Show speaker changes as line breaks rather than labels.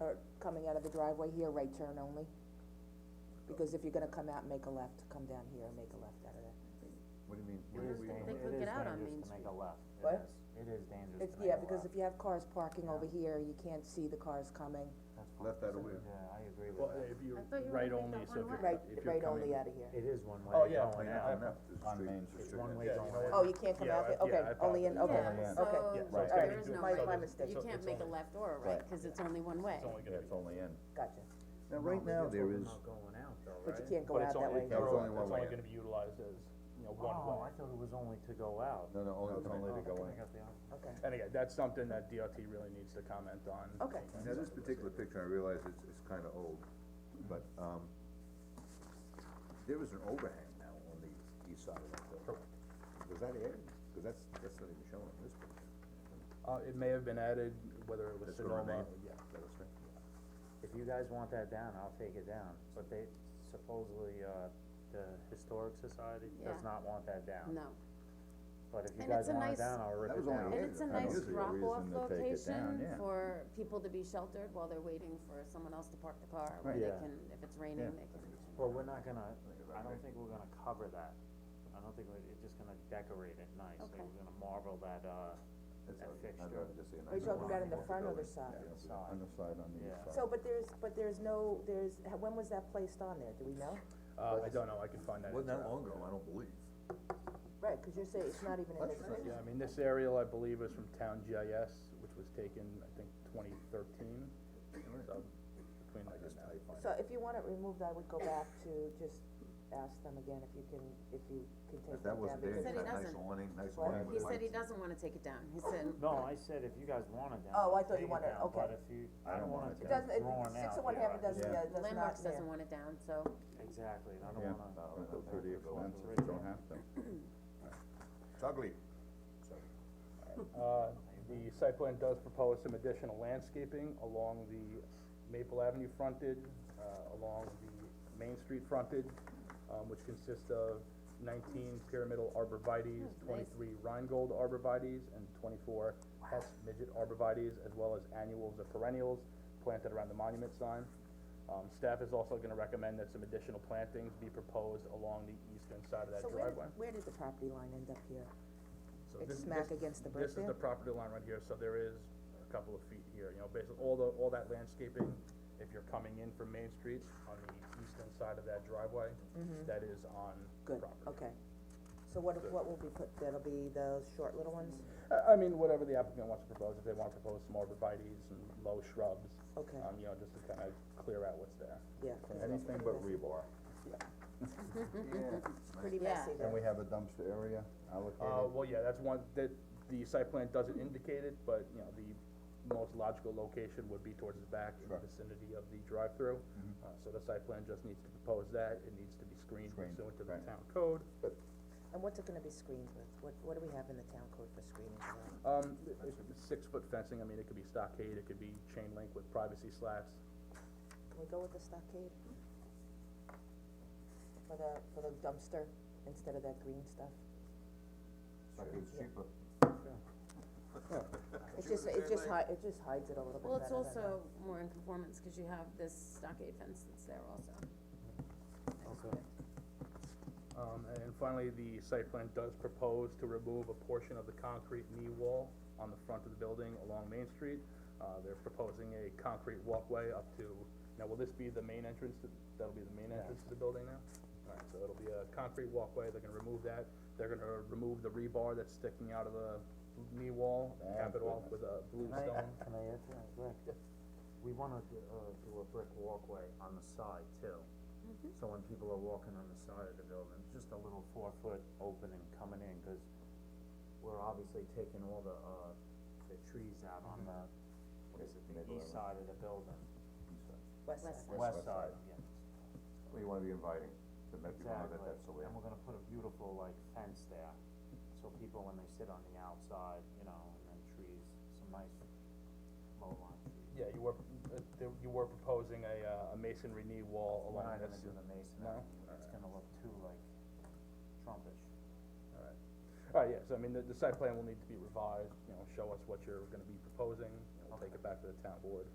or coming out of the driveway here, right turn only? Because if you're gonna come out and make a left, come down here and make a left out of there.
What do you mean?
It is dangerous,
They could
it is
get out on Main
dangerous to make a
Street.
left,
What?
it is, it is dangerous
It's,
to make a left.
yeah, because if you have cars parking over
Yeah.
here, you can't see the cars coming,
That's fine.
Left out of where?
Yeah, I agree with
Well,
that.
if you,
I thought you were
Right
gonna
only,
take that
so if
one
you're-
away.
right,
If you're
right only
coming-
out of here.
It is one way.
Oh, yeah.
going
Yeah,
out.
I'm
not- it's
On
true.
Main
It's
Street.
one
It's
way going out.
Oh, you can't come
Yeah,
out there,
I- yeah,
okay,
I
only in, okay,
Yeah,
yeah.
Yeah,
okay,
so,
be dual-
so it's gotta
there is no
so
way.
there's-
my mistake.
You
so
can't
it's
make a
only-
left or a right,
Right.
cause it's only one way.
It's only
Yeah,
gonna be,
it's only in.
gotcha,
Now, Oh, right now, there is,
Not going out though,
but
right?
you can't go
but
out
it's
that
only,
way.
it's
Yeah, it's
only,
only one
it's only
way.
gonna be utilized as, you know, one
Oh,
way.
I thought it was only to go out.
no, no, only, it's only to go in.
"Oh, I got the opposite.
Okay,
And again, that's something that DOT really needs to comment on.
Okay.
Now, this particular picture, I realize it's, it's kinda old, but, um, there is an overhang now on the east side of that building. Was that added? Cause that's, that's not even shown in this picture.
Uh, it may have been added, whether it was
That's gonna
Sonoma,
remain, yeah, that was right.
If you guys want that down, I'll take it down, but they supposedly, uh, the Historic Society
Yeah.
does not want that down.
No,
But if you
And it's
guys
a
want
nice-
it down, I'll rip
That
it
was
down.
only
and
Yeah,
it's a
I
nice
guess there's a
drop off
reason to take it down,
location
yeah.
for people to be sheltered while they're waiting for someone else to park the car, where
Right.
they
Yeah.
can, if it's raining, they can.
Well, we're not gonna, I don't think we're gonna cover that, I don't think we're, it's just gonna decorate it nice, like
Okay.
we're gonna marble that, uh,
That's
that
all right. I'd
fixture.
rather just see a
Are you
nice
talking about in
overhang
the
of
front or the
building.
side?
Yeah,
Side.
On the side, on the east
Yeah.
side.
so, but there's, but there's no, there's, when was that placed on there, do we know?
uh, I don't know, I can find that.
Wasn't that
out.
long ago, I don't believe.
Right, cause you're saying it's not even in
That's
this,
right.
Yeah, I mean, this aerial, I believe, is from Town GIS, which was taken, I think, twenty thirteen, so, between like and now, you find
so if you want it removed, I would go back to just ask them again if you can, if you can take
If
that
that
down.
wasn't there,
because-
you had
Said he
a nice
doesn't.
awning, nice
What?
awning
He
with
said he
lights.
doesn't wanna take it down, he said,
No, I said if you guys want it down.
Oh, I thought you
take it
wanted-
down,
okay.
But if you, I don't want it to
It
be
doesn't, it,
drawn out.
six of one,
yeah,
half
I
it doesn't,
just-
yeah, it does not,
Landmarks
yeah,
doesn't want it down, so,
Exactly, and I don't
Yeah,
wanna.
don't go through the expense if you don't have to. It's ugly.
Uh, the site plan does propose some additional landscaping along the Maple Avenue frontage, uh, along the Main Street frontage, um, which consists of nineteen pyramidal
Oh,
arborvitaes,
nice.
twenty-three Rheingold arborvitaes, and twenty-four Hess midget arborvitaes, as well as annuals or perennials planted around the monument sign. Um, staff is also gonna recommend that some additional plantings be proposed along the eastern side of that
So where,
driveway.
did- where did the property line end up here?
So
It's
this-
smack
this-
against the brick
This is
there?
the property line right here, so there is a couple of feet here, you know, basically, all the, all that landscaping, if you're coming in from Main Street on the eastern side of that driveway, that is on
Mm-hmm. Good,
property.
okay. So what, what will be put, that'll be the short little ones?
I, I mean, whatever the applicant wants to propose, if they wanna propose some arborvitae's and low shrubs,
Okay.
um, you know, just to kinda clear out what's there.
Yeah. 'cause that's
Anything but rebar.
Pretty
Yeah.
messy
And
there.
we have a dumpster area
Uh,
allocated.
well, yeah, that's one, that, the site plan doesn't indicate it, but, you know, the most logical location would be towards the back in the
Sure.
vicinity of the drive-through.
Mm-hmm.
Uh, so the site plan just needs to propose that, it needs to be screened
Screened,
pursuant to the
right.
town code.
And what's it gonna be screened with? What, what do we have in the town code for screening for that?
Um, it- it's six-foot fencing, I mean, it could be stockade, it could be chain link with privacy slats.
Can we go with the stockade? For the, for the dumpster instead of that green stuff?
Like it's cheaper.
It just, it just hi, it just hides it a little bit
well,
better
it's
than that.
also more in conformance, cause you have this stockade fence that's there also.
Okay.
Um, and then finally, the site plan does propose to remove a portion of the concrete knee wall on the front of the building along Main Street. Uh, they're proposing a concrete walkway up to, now will this be the main entrance, to- that'll be the main entrance to the building now? Alright, so it'll be a concrete walkway, they're gonna remove that, they're gonna remove the rebar that's sticking out of the knee wall,
Oh,
cap it off
goodness.
with a blue
Can I,
stone.
can I add to that, Rick? We wanna do, uh, do a brick walkway on the side too. So when people are walking on the side of the building, just a little four foot opening coming in, cause we're obviously taking all the, uh, the trees out on the, what is it, the
Middle of it.
east side of the building,
West
West
side.
side.
west
west
side.
side, yeah,
Well, you wanna be inviting, to let people know
exactly.
that that's the way.
And we're gonna put a beautiful like fence there, so people when they sit on the outside, you know, and then trees, some nice low line trees.
Yeah, you were, uh, there- you were proposing a, uh, a masonry knee wall
We're
along
not
this.
gonna do the mason,
No?
it's gonna look too like Trumpish.
Alright, alright, yeah, so Uh, I mean, the, the site plan will need to be revised, you know, show us what you're gonna be proposing, you know, we'll take it back to the town board.